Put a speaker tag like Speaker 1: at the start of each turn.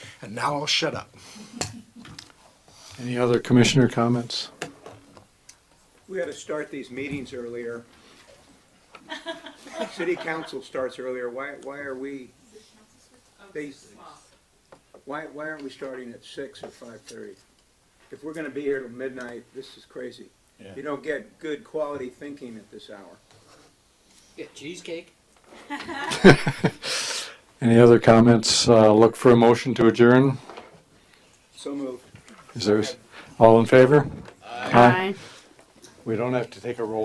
Speaker 1: And now I'll shut up.
Speaker 2: Any other commissioner comments?
Speaker 3: We had to start these meetings earlier. City council starts earlier, why, why are we? They, why, why aren't we starting at six or five-thirty? If we're gonna be here till midnight, this is crazy. You don't get good quality thinking at this hour.
Speaker 4: Get cheesecake.
Speaker 2: Any other comments? Uh, Look for a motion to adjourn.
Speaker 3: So moved.
Speaker 2: Is there, all in favor? Aye. We don't have to take a roll